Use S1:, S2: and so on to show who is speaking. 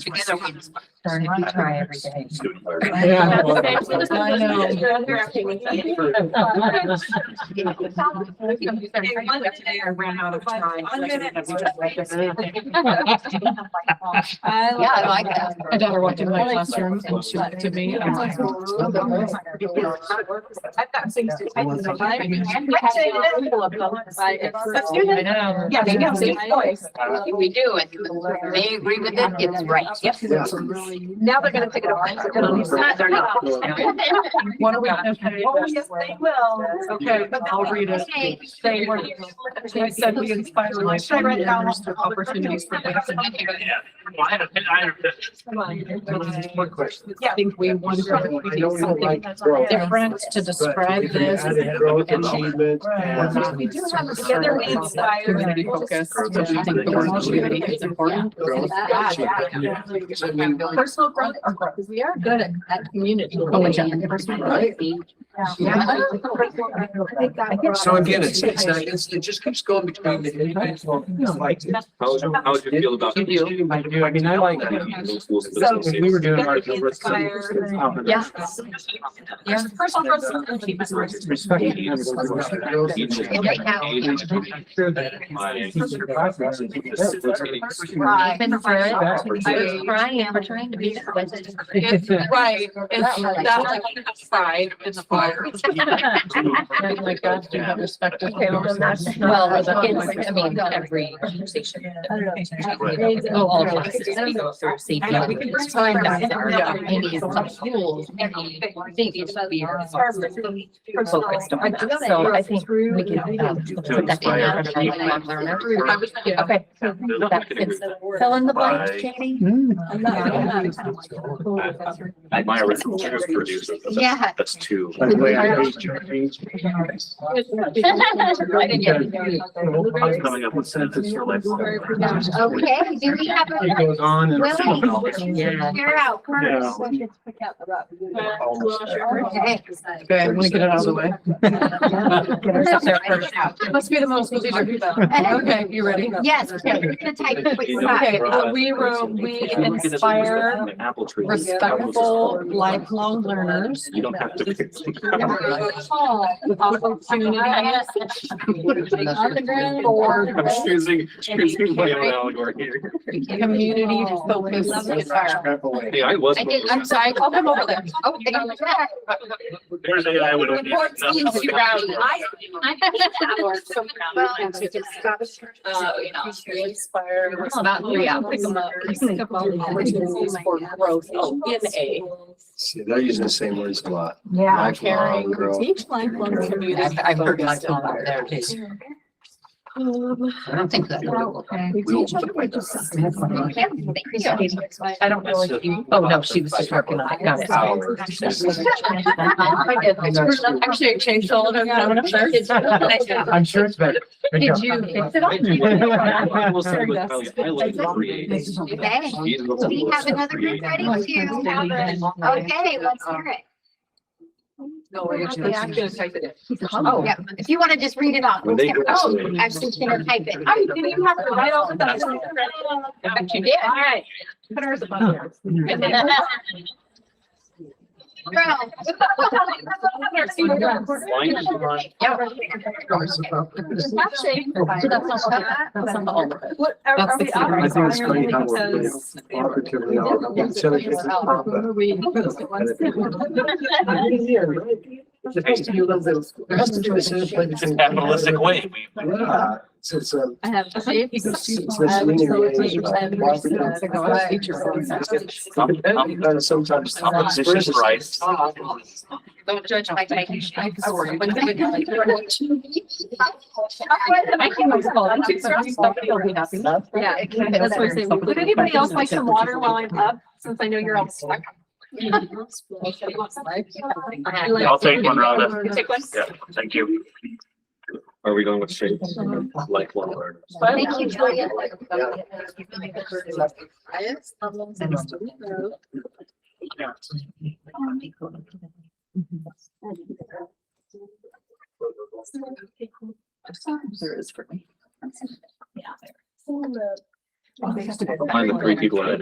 S1: Together we
S2: Darn
S3: um,
S2: it, we try every day.
S4: Yeah.
S2: I know.
S1: Today I ran out of time.
S5: I'm gonna-
S2: I
S1: Yeah, I like that.
S4: My daughter walked into my classroom and she looked to me and I'm like.
S5: I've got things to type in the time. Let's do
S4: I
S5: that.
S4: know.
S5: Yeah, they have safe voice.
S1: If We do, and they agree with it, it's right. Yep.
S5: Now they're gonna pick it up.
S1: They're not.
S4: What are we?
S5: Oh, yes, they will.
S4: Okay, I'll read
S1: Okay.
S4: it. They were, they said we inspire my
S5: Should I write down
S4: leaders to opportunities for them.
S6: I had a, I had a.
S7: One question.
S4: I think we wonder if we do something different to describe this.
S7: Growth
S4: and
S7: and
S4: change.
S7: achievement.
S4: Right.
S7: and-
S4: We
S5: do have a together we inspire.
S4: Community focus, which I think the word community is important.
S7: Growth and
S1: Yeah,
S7: achievement.
S1: yeah.
S7: I mean,
S4: Personal growth or growth, because we are good at, at community. Oh, and gender diversity.
S7: Right?
S4: Yeah.
S7: So again, it's, it's, not- it's, it just keeps going between the individual. It's like-
S6: How would you, how would you feel about?
S4: You do.
S7: I do, I mean, I like that.
S6: So
S7: We were doing our.
S4: Yeah.
S5: There's personal growth. and community members.
S7: Respect.
S1: And right now, yeah.
S7: Right.
S1: Right.
S3: Even for it,
S7: That's-
S3: I was crying, we're trying to be.
S4: Right, it's that like pride in the fire. And like that, you have respect. of-
S3: Okay, well, that's-
S1: Well, it's, I mean, every conversation.
S4: Oh, all of us.
S5: I know, we can bring-
S1: It's time that there are any rules, any things that we are.
S5: Focused on that.
S3: So I think we can um, put that in
S6: Inspire.
S3: our lifelong learner.
S4: I was- yeah.
S3: Okay, that fits. Fill in the blank, Katie.
S6: My original producer. but that's-
S1: Yeah.
S6: That's two.
S7: By the way, I hate your age.
S6: I'm coming up with sentences
S7: Oh,
S6: for life.
S1: Okay, do we have
S7: It
S1: a,
S7: goes on and.
S1: Willie?
S3: Yeah.
S1: you're out
S7: Yeah.
S1: first.
S7: Almost there.
S1: Okay.
S4: Okay, I'm gonna get it out of the way. Let's be the most. Okay, you ready?
S1: Yes, okay, you're gonna type what you got.
S4: Okay, uh, we were, we inspire
S6: Apple tree.
S4: respectful lifelong learners.
S6: You don't have to. pick-
S4: with opportunities for
S6: I'm choosing, choosing my own allegory here.
S4: community focused environment.
S6: Hey, I was.
S1: I did, I'm sorry, I'll come over there. Oh, they got that.
S6: There's AI would.
S1: Report teams to rally. Well, it's just-
S4: Uh, you know, we inspire, it's not three apples, opportunities for growth oh, in a
S7: See, they're using the same words a lot.
S4: Yeah.
S7: Lifelong growth.
S4: Teach lifelong community.
S2: I've I've heard my
S4: focused
S2: phone over there.
S4: environment.
S2: too.
S4: Um,
S1: I don't think that. Okay.
S4: we teach lifelong- I don't really.
S2: Oh, no, she was just working on it. Got it.
S4: I did. Actually, I changed all of them. I went up there.
S7: I'm sure it's better.
S3: Did you fix it all?
S6: I will say, look, I like create.
S1: Okay,
S6: These are the
S1: do we have
S6: ones that
S1: another group
S6: create.
S1: ready to? Okay, let's hear it.
S4: No, we're just-
S2: Yeah, I'm
S4: just type it in.
S2: Oh,
S1: Yeah, if you want to just read it off.
S6: When they
S1: let's get-
S6: graduate.
S1: Actually, can I type it?
S5: I didn't even have to write all of that.
S4: But you did.
S5: All right. Put ours above yours. And then-
S6: Why is it on?
S4: That's not all of it.
S5: What, are
S2: That's
S5: are
S2: the
S5: we
S7: I
S2: secret.
S5: out?
S7: think it's great how we're
S5: Because-
S7: operatively all- it's so- it's- That's the decision, but
S6: It's a capitalistic way. We-
S7: Yeah, it's- it's a-
S4: I have.
S7: it's- it's
S3: um,
S7: this linear age of cooperative- I'm kind of Sometimes.
S6: Competition's right.
S3: Don't judge my technique.
S4: I swear.
S5: Yeah. That's what I'm saying. Would anybody else like some water while I'm up, since I know you're all stuck?
S6: I'll take one, Rhonda.
S5: You take one?
S6: Yeah, thank you. Are we going with shape? Lifelong learners.
S1: Thank you, Julia.
S4: There is for me.
S6: Find the three people that